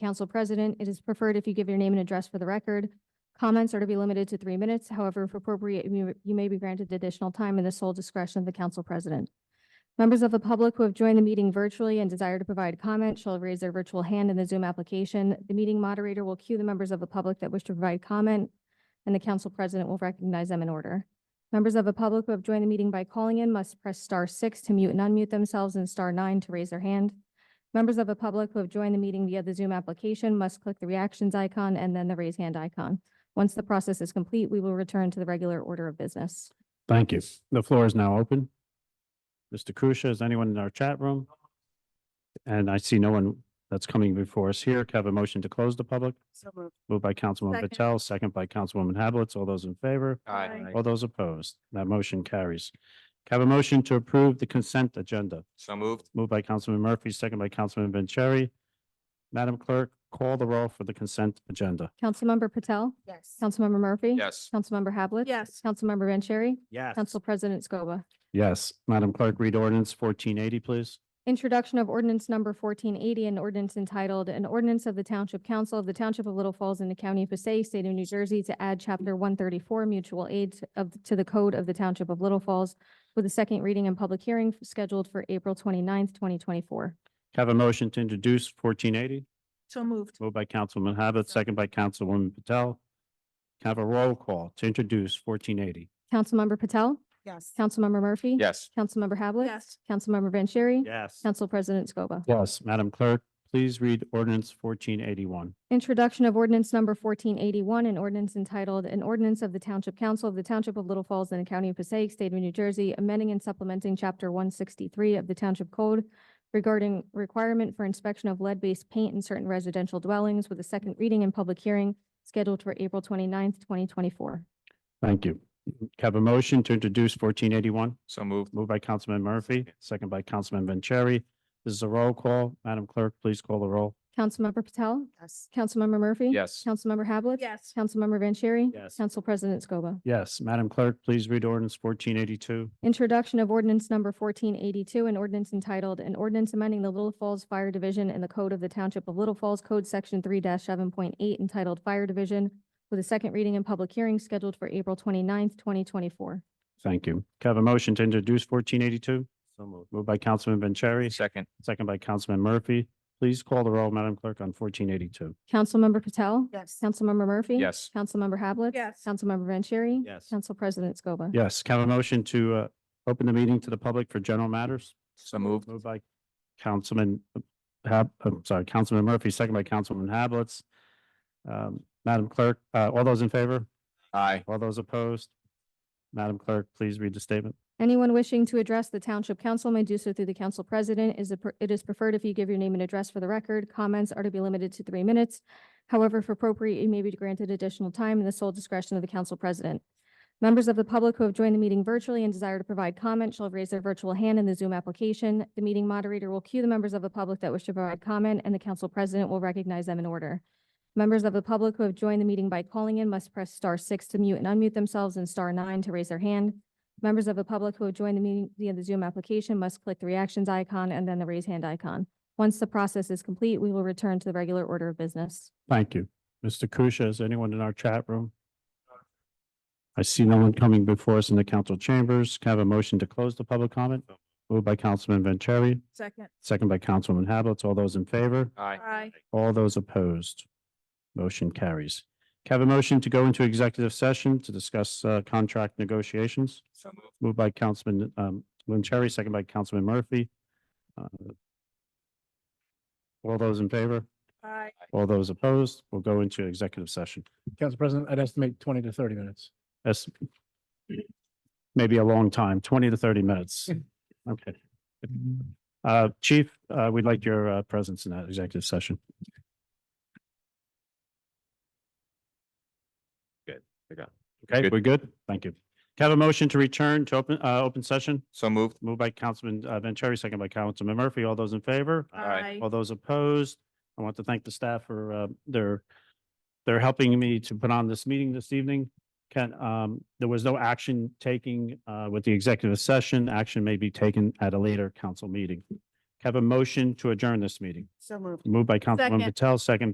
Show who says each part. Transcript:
Speaker 1: Council President, it is preferred if you give your name and address for the record. Comments are to be limited to three minutes. However, if appropriate, you you may be granted additional time in the sole discretion of the Council President. Members of the public who have joined the meeting virtually and desire to provide comment shall raise their virtual hand in the Zoom application. The meeting moderator will cue the members of the public that wish to provide comment, and the Council President will recognize them in order. Members of the public who have joined the meeting by calling in must press star six to mute and unmute themselves and star nine to raise their hand. Members of the public who have joined the meeting via the Zoom application must click the reactions icon and then the raise hand icon. Once the process is complete, we will return to the regular order of business.
Speaker 2: Thank you. The floor is now open. Mr. Kusia, is anyone in our chat room? And I see no one that's coming before us here. Can I Have a motion to close the public?
Speaker 3: So moved.
Speaker 2: Moved by Councilwoman
Speaker 3: Second.
Speaker 2: Patel, second by Councilwoman Hablitz. All those in favor?
Speaker 3: Aye.
Speaker 2: All those opposed? That motion carries. Can I Have a motion to approve the consent agenda.
Speaker 4: So moved.
Speaker 2: Moved by Councilman Murphy, second by Councilman Vanchery. Madam Clerk, call the roll for the consent agenda.
Speaker 1: Councilmember Patel,
Speaker 3: Yes.
Speaker 1: Councilmember Murphy.
Speaker 4: Yes.
Speaker 1: Councilmember Hablitz,
Speaker 3: Yes.
Speaker 1: Councilmember Vanchery,
Speaker 2: Yes.
Speaker 1: Council President Scoba.
Speaker 2: Yes. Madam Clerk, read ordinance fourteen eighty, please.
Speaker 1: Introduction of ordinance number fourteen eighty, an ordinance entitled, an ordinance of the Township Council of the Township of Little Falls in the County of Passaic, State of New Jersey, to add chapter one thirty-four mutual aid to- of, to the code of the Township of Little Falls with a second reading and public hearing scheduled for April 29th, twenty-four.
Speaker 2: Have a motion to introduce fourteen eighty,
Speaker 3: So moved.
Speaker 2: moved by Councilman Abbott, second by Councilwoman Patel. Can I Have a roll call to introduce fourteen eighty.
Speaker 1: Councilmember Patel,
Speaker 3: Yes.
Speaker 1: Councilmember Murphy.
Speaker 4: Yes.
Speaker 1: Councilmember Havlet.
Speaker 3: Yes.
Speaker 1: Councilmember Vanchery.
Speaker 2: Yes.
Speaker 1: Council President Scoba.
Speaker 2: Yes, Madam Clerk, please read ordinance fourteen eighty-one.
Speaker 1: Introduction of ordinance number fourteen eighty-one, an ordinance entitled, an ordinance of the Township Council of the Township of Little Falls and the County of Passaic, State of New Jersey, amending and supplementing chapter one sixty-three of the Township Code regarding requirement for inspection of lead-based paint in certain residential dwellings with a second reading and public hearing scheduled for April 29th, twenty-four.
Speaker 2: Thank you. Can I Have a motion to introduce fourteen eighty-one,
Speaker 4: So moved.
Speaker 2: moved by Councilman Murphy, second by Councilman Vanchery. This is a roll call. Madam Clerk, please call the roll.
Speaker 1: Councilmember Patel,
Speaker 3: Yes.
Speaker 1: Councilmember Murphy.
Speaker 4: Yes.
Speaker 1: Councilmember Havlet.
Speaker 3: Yes.
Speaker 1: Councilmember Vanchery.
Speaker 2: Yes.
Speaker 1: Council President Scoba.
Speaker 2: Yes, Madam Clerk, please read ordinance fourteen eighty-two.
Speaker 1: Introduction of ordinance number fourteen eighty-two, an ordinance entitled, an ordinance amending the Little Falls Fire Division and the Code of the Township of Little Falls Code Section three seven point eight entitled Fire Division with a second reading and public hearing scheduled for April 29th, twenty-four.
Speaker 2: Thank you. Can I Have a motion to introduce fourteen eighty-two. So moved. Moved by Councilman Vanchery,
Speaker 4: Second.
Speaker 2: second by Councilman Murphy. Please call the roll, Madam Clerk, on fourteen eighty-two.
Speaker 1: Councilmember Patel.
Speaker 3: Yes.
Speaker 1: Councilmember Murphy.
Speaker 4: Yes.
Speaker 1: Councilmember Hablitz,
Speaker 3: Yes.
Speaker 1: Councilmember Vanchery.
Speaker 2: Yes.
Speaker 1: Council President Scoba.
Speaker 2: Yes, can I have a motion to uh open the meeting to the public for general matters?
Speaker 4: So moved.
Speaker 2: Moved by Councilman uh, Hab, I'm sorry, Councilman Murphy, second by Councilman Hablitz. Um, Madam Clerk, uh, all those in favor?
Speaker 4: Aye.
Speaker 2: All those opposed? Madam Clerk, please read the statement.
Speaker 1: Anyone wishing to address the Township Council may do so through the Council President. Is it pre- it is preferred if you give your name and address for the record. Comments are to be limited to three minutes. However, if appropriate, you may be granted additional time in the sole discretion of the Council President. Members of the public who have joined the meeting virtually and desire to provide comment shall raise their virtual hand in the Zoom application. The meeting moderator will cue the members of the public that wish to provide comment, and the Council President will recognize them in order. Members of the public who have joined the meeting by calling in must press star six to mute and unmute themselves and star nine to raise their hand. Members of the public who have joined the meeting via the Zoom application must click the reactions icon and then the raise hand icon. Once the process is complete, we will return to the regular order of business.
Speaker 2: Thank you. Mr. Kusia, is anyone in our chat room? I see no one coming before us in the council chambers. Can I have a motion to close the public comment? Moved by Councilman Vanchery,
Speaker 3: Second.
Speaker 2: second by Councilwoman Hablitz. All those in favor?
Speaker 4: Aye.
Speaker 3: Aye.
Speaker 2: All those opposed? Motion carries. Can I have a motion to go into executive session to discuss uh, contract negotiations?
Speaker 4: So moved.
Speaker 2: Moved by Councilman um, Vanchery, second by Councilman Murphy. Uh, All those in favor?
Speaker 3: Aye.
Speaker 2: All those opposed will go into executive session.
Speaker 5: Council President, I'd estimate twenty to thirty minutes.
Speaker 2: That's maybe a long time, twenty to thirty minutes. Okay. Uh, Chief, uh, we'd like your uh, presence in that executive session.
Speaker 4: Good, I got
Speaker 2: Okay,
Speaker 4: Good.
Speaker 2: we're good? Thank you. Can I have a motion to return to open, uh, open session?
Speaker 4: So moved.
Speaker 2: Moved by Councilman uh, Vanchery, second by Councilman Murphy. All those in favor?
Speaker 4: Aye.
Speaker 2: All those opposed, I want to thank the staff for uh, their, they're helping me to put on this meeting this evening. Can, um, there was no action taking uh, with the executive session. Action may be taken at a later council meeting. Have a motion to adjourn this meeting.
Speaker 3: So moved.
Speaker 2: Moved by Councilwoman
Speaker 3: Second.
Speaker 2: Patel, second